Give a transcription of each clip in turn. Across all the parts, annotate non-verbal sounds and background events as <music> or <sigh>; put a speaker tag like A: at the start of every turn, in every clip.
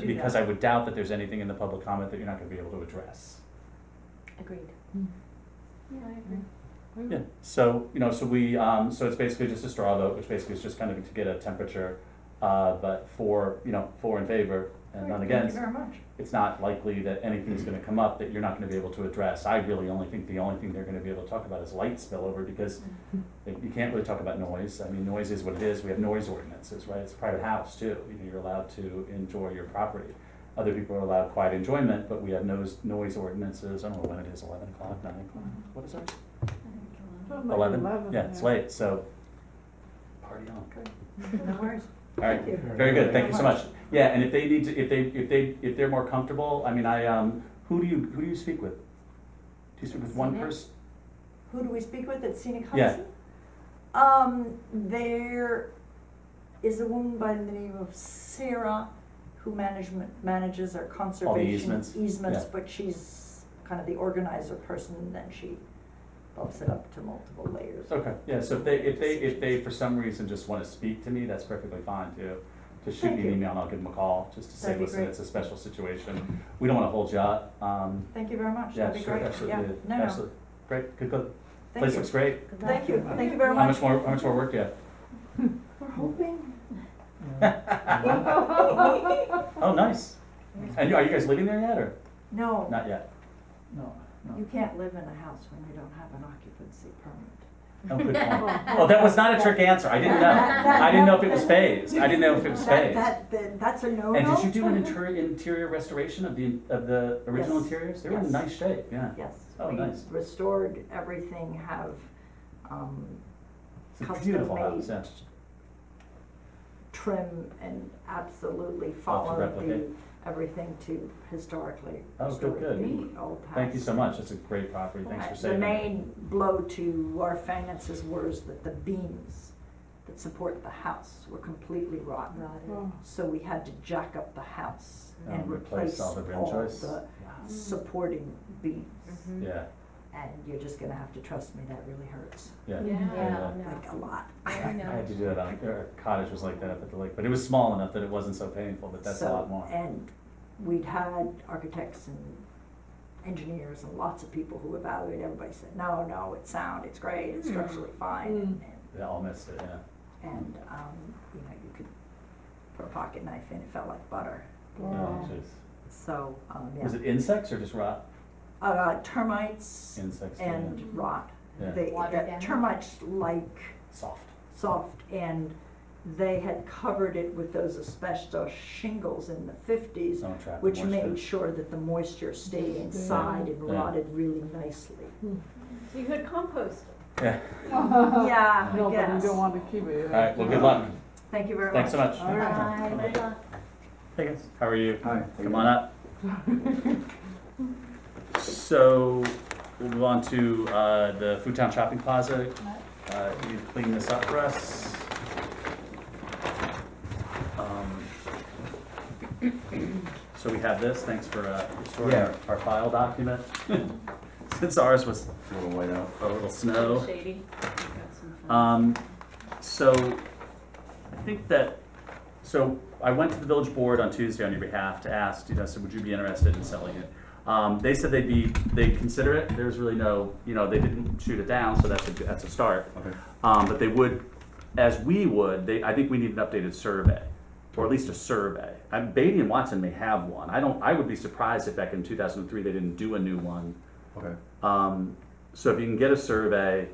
A: do
B: because
A: that.
B: I would doubt that there's anything in the public comment that you're not gonna be able to address.
A: Agreed.
C: Mm.
A: Yeah, I agree.
B: Yeah, so, you know, so we, um, so it's basically just a straw vote, which basically is just kind of to get a temperature, uh, but for, you know, for in favor and none against.
A: Thank you very much.
B: It's not likely that anything's gonna come up that you're not gonna be able to address. I really only think the only thing they're gonna be able to talk about is light spillover, because
A: Mm-hmm.
B: they- you can't really talk about noise. I mean, noise is what it is. We have noise ordinances, right? It's a private house too. You know, you're allowed to enjoy your property. Other people are allowed quiet enjoyment, but we have noise, noise ordinances. I don't know when it is, eleven o'clock, nine o'clock?
A: Mm-hmm.
B: What is ours?
C: Something like
B: Eleven? Yeah, it's
C: yeah.
B: late, so party on.
A: No worries.
B: All right,
A: Thank you.
B: very good. Thank you so
A: Very
B: much. Yeah, and if they need to, if they, if they, if they're more comfortable, I mean, I, um, who do you, who do you speak with? Do you speak with one
A: Senior?
B: person?
A: Who do we speak with at Scenic
B: Yeah.
A: Housing? Um, there is a woman by the name of Sarah who management, manages our conservation
B: easements?
A: easements,
B: Yeah.
A: but she's kind of the organizer person and then she bumps it up to multiple layers.
B: Okay, yeah, so if they, if they, if they for some reason just wanna speak to me, that's perfectly fine too. Just shoot me
A: Thank
B: an
A: you.
B: email and I'll give them a call, just to say,
A: That'd be
B: listen,
A: great.
B: it's a special situation. We don't wanna hold you up, um,
A: Thank you very much,
B: yeah,
A: that'd be
B: sure,
A: great, yeah,
B: absolutely,
A: no, no,
B: absolutely. Great, good, good.
A: thank
B: Place
A: you,
B: looks great.
A: thank you, thank you very
B: How
A: much.
B: much more, how much more work do you have? <laughs>
A: We're hoping.
B: Oh, nice. And you- are you guys living there yet, or?
A: <laughs> No,
B: Not yet.
A: Oh,
C: No,
A: You can't live in a house when you don't have an occupancy permit.
B: Oh,
A: <laughs>
B: good point. Oh, that was not a trick answer. I didn't know. I didn't know if it was phased. I didn't know if it was
A: That,
B: phased.
A: that, that- that's a no-no.
B: And did you do an interior, interior restoration of the, of the original
A: Yes.
B: interiors? They were in
A: Yes.
B: nice shape, yeah.
A: Yes.
B: Oh,
A: we
B: nice.
A: Restored everything, have, um,
B: It's a beautiful house, yeah.
A: trim and absolutely
B: to
A: followed the,
B: replicate.
A: everything to historically
B: Oh, good,
A: restored
B: good.
A: the old house.
B: Thank you so much. It's a great property. Thanks for
A: Right.
B: saving
A: The
B: it.
A: main blow to our finances was that the beams that support the house were completely rotten. So we had to jack up the house and
B: Um,
A: replace all the
B: rim joists.
A: supporting beams.
B: Yeah,
A: And you're just gonna have to trust me, that really hurts,
B: yeah.
D: Yeah,
A: like a lot.
D: I
B: I
D: know.
B: had to do that on, our cottage was like that up at the lake, but it was small enough that it wasn't so painful, but that's a
A: So-
B: lot more.
A: And we'd had architects and engineers and lots of people who evaluated, everybody said, no, no, it's sound, it's great,
D: Hmm.
A: it's structurally fine. and-
B: They all missed it, yeah.
A: And, um, you know, you could put a pocket knife in, it felt like butter,
B: Oh, jeez.
A: so, um,
B: Was
A: yeah.
B: it insects or just rot?
A: Uh, termites
B: Insects, too, yeah.
A: and rot.
B: Yeah.
A: They,
D: Water
A: that
D: damage.
A: termites like
B: Soft.
A: soft and they had covered it with those asbestos shingles in the fifties,
B: Someone trapped the
A: which
B: moisture.
A: made sure that the moisture stayed inside and
B: Yeah.
A: rotted really nicely.
D: So you could compost it.
B: Yeah,
A: <laughs> Yeah,
C: No,
A: I
C: but you
A: guess.
C: don't want to keep it.
B: all right, well, good luck.
A: Thank you very much.
B: Thanks so much.
C: All right.
D: Bye, good luck.
B: Hey guys. How are you?
C: Hi.
B: Come on up. So, we'll move on to, uh, the Foodtown Shopping Plaza. Uh, you clean this up for us. Um, So we have this, thanks for, uh, restoring our, our file document. <laughs> Since ours was
E: A little white out.
B: a little snow.
D: Shady. Got some fun.
B: Um, so, I think that, so I went to the village board on Tuesday on your behalf to ask, you know, so would you be interested in selling it? Um, they said they'd be, they'd consider it, there's really no, you know, they didn't shoot it down, so that's a, that's a start.
E: Okay.
B: Um, but they would, as we would, they, I think we need an updated survey, or at least a survey. Um, Beatty and Watson may have one, I don't, I would be surprised if back in two thousand and three, they didn't do a new one.
E: Okay.
B: Um, so if you can get a survey,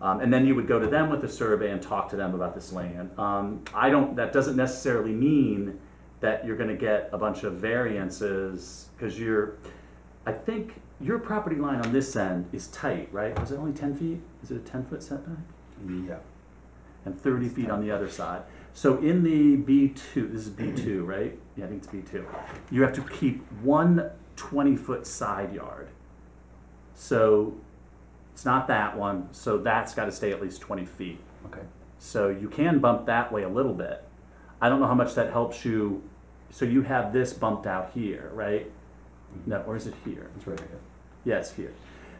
B: um, and then you would go to them with a survey and talk to them about this land. Um, I don't, that doesn't necessarily mean that you're gonna get a bunch of variances, cause you're, I think your property line on this end is tight, right? Was it only ten feet? Is it a ten foot setback?
E: Yeah.
B: And thirty feet on the other side. So in the B two, this is B two, <clears throat> right? Yeah, I think it's B two. You have to keep one 20 foot side yard. So it's not that one, so that's gotta stay at least twenty feet.
E: Okay.
B: So you can bump that way a little bit. I don't know how much that helps you, so you have this bumped out here, right? No, or is it here?
E: It's right here.
B: Yeah, it's here.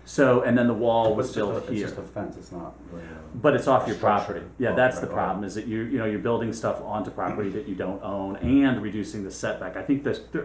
B: So, and then the wall was
E: It's just a-
B: built
E: It's
B: here.
E: just a fence, it's not really. a-
B: But it's off your
E: Structure.
B: property. Yeah,
E: Oh,
B: that's the
E: right, right.
B: problem, is that you, you know, you're building stuff onto property that you don't own and reducing the setback. I think this, there